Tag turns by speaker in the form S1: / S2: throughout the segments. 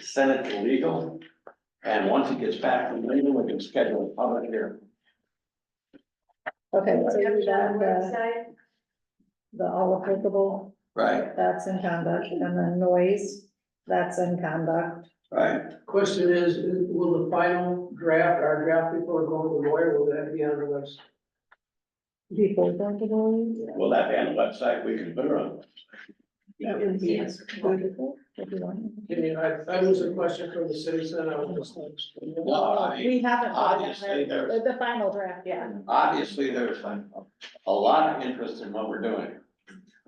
S1: send it to legal. And once it gets back from legal, we can schedule a public hearing.
S2: Okay, so you got the,
S3: Website,
S2: the all applicable,
S1: Right,
S2: that's in conduct, and then noise, that's in conduct.
S1: right.
S4: Question is, will the final draft, our draft before going to the lawyer, will that be on the website?
S2: Before going to noise,
S1: Will that be on the website? We can put it on.
S2: that would be
S3: Yes.
S2: beautiful, if you want.
S4: I mean, I, I was a question from the citizen, I was just like.
S1: No, I mean,
S2: We haven't. put it
S1: obviously
S2: in there.
S1: there's-
S2: The, the final draft, yeah.
S1: obviously, there's a a lot of interest in what we're doing.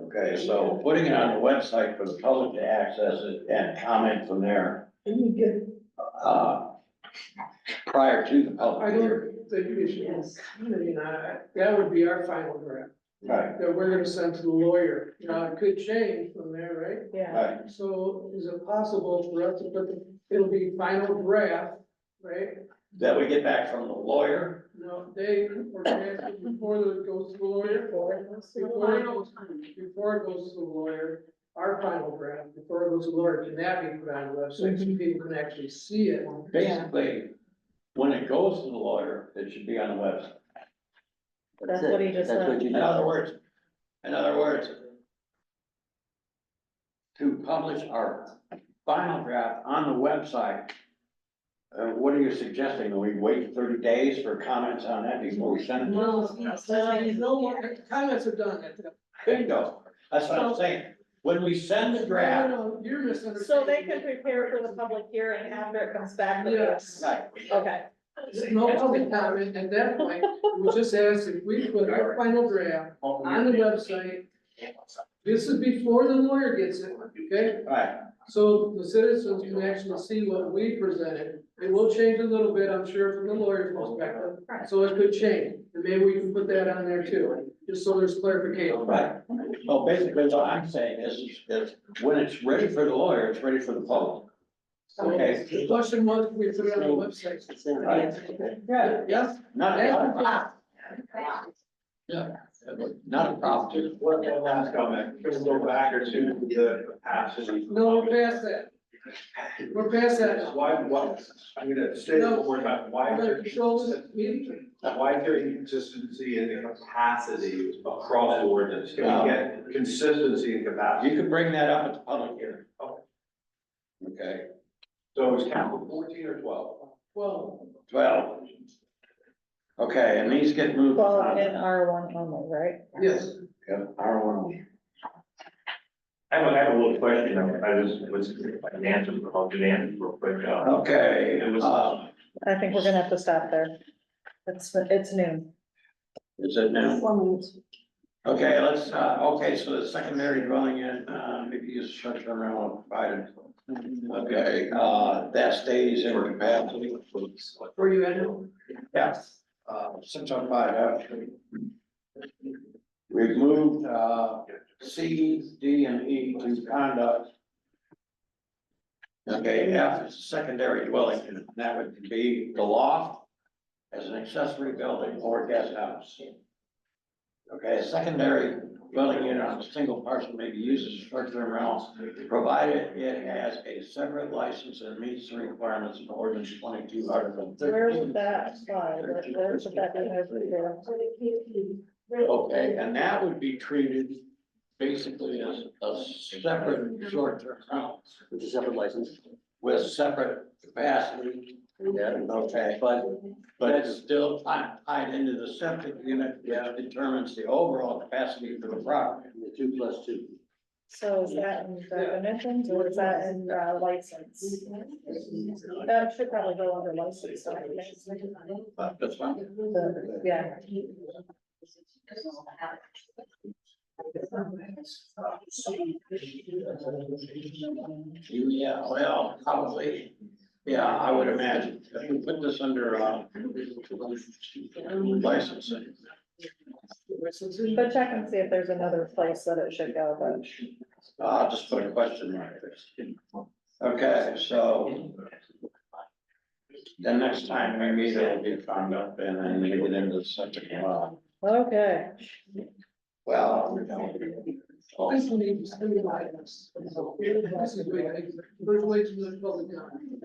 S1: Okay, so putting it on the website for the public to access it and comment from there,
S4: You get,
S1: uh, prior to the
S4: I
S1: public hearing.
S4: don't think you should,
S3: Yes.
S4: I mean, I, that would be our final draft,
S1: Right,
S4: that we're gonna send to the lawyer. Now, it could change from there, right?
S2: Yeah.
S1: right.
S4: So is it possible for us to put, the- it'll be final draft, right?
S1: That we get back from the lawyer,
S4: No, they, or drafted before it goes to the lawyer,
S3: Why don't-
S4: before it goes to the lawyer, our final draft, before it goes to the lawyer, can that be put on the website
S1: Mhm.
S4: so people can actually see it?
S1: basically, when it goes to the lawyer, it should be on the website.
S2: That's what he just
S5: That's what
S2: said.
S5: you
S1: In
S5: just-
S1: other words, in other words, to publish our final draft on the website, uh, what are you suggesting? Do we wait thirty days for comments on that before we send it?
S4: No, no, comments are done at that.
S1: Bingo, that's what I'm saying. When we send the draft,
S4: No, no, you're misunderstanding.
S2: So they can prepare for the public hearing after it comes back. to the-
S4: Yes.
S1: right,
S2: Okay,
S4: No public comment at that point, we just asked if we put our final draft on the website. This is before the lawyer gets it, okay?
S1: right,
S4: So the citizens can actually see what we presented. It will change a little bit, I'm sure, from the lawyer's perspective.
S3: Right.
S4: So it could change, and maybe we can put that on there too, just so there's clarification.
S1: right. So basically, what I'm saying is, is when it's ready for the lawyer, it's ready for the public.
S4: So
S1: Okay.
S4: the question was, we put it on the website.
S5: It's in-
S1: Right. Yeah,
S4: Yes?
S1: not, not a problem.
S4: Yeah.
S1: Not a problem.
S6: One one last comment, just go back to the capacity.
S4: No, we're past that. We're past that.
S6: Why, why, I'm gonna say one more time, why
S4: We're
S6: is
S4: gonna
S6: there
S4: control this
S6: consistency,
S4: meeting.
S6: why is there inconsistency in the capacity across the ordinance? Can we get consistency in
S1: You
S6: capacity?
S1: could bring that up at the public hearing.
S6: Okay.
S1: Okay,
S6: So it's count fourteen or twelve?
S4: Well,
S1: twelve. Okay, and these get moved.
S2: well, in R one only, right?
S4: yes.
S1: Yep, R one.
S7: I have, a- I have a little question, I I was, was, an answer, I'll do answer real quick, uh,
S1: Okay,
S7: it was,
S1: uh,
S2: I think we're gonna have to stop there. It's, it's noon.
S1: is it now? Okay, let's, uh, okay, so the secondary dwelling unit, uh, maybe use structure around provided. Okay, uh, that stays in capacity.
S4: Were you at home?
S1: Yes, uh, six oh five, actually. We've moved, uh, C, D, and E to conduct. Okay, F is secondary dwelling, and that would be the loft as an accessory building or guest house. Okay, a secondary dwelling unit on a single parcel may be used as a structure in realms,
S7: uh,
S1: provided it has a separate license and meets the requirements of ordinance twenty-two, article thirteen.
S2: Where would that apply? Where where should that be? noted?
S1: Okay, and that would be treated basically as a separate short-term rental
S5: It's a separate license,
S1: with separate capacity,
S5: yeah,
S1: okay?
S5: but
S1: But it's still tied, tied into the septic unit, which determines the overall capacity for the property.
S5: the two plus two.
S2: So is that in definitions or is that in uh, license? That should probably go under license, I think.
S1: But that's fine.
S2: The- Yeah,
S1: Yeah, well, probably, yeah, I would imagine, if we put this under, uh, licensing.
S2: but check and see if there's another place that it should go, but.
S1: I'll Ah, just put a question mark there. Okay, so. The next time we meet, it'll be found up and I need it into the subject. Well,
S2: Okay,
S1: Well,
S4: This is me, just three items. This is way, I- first way to the public. comment.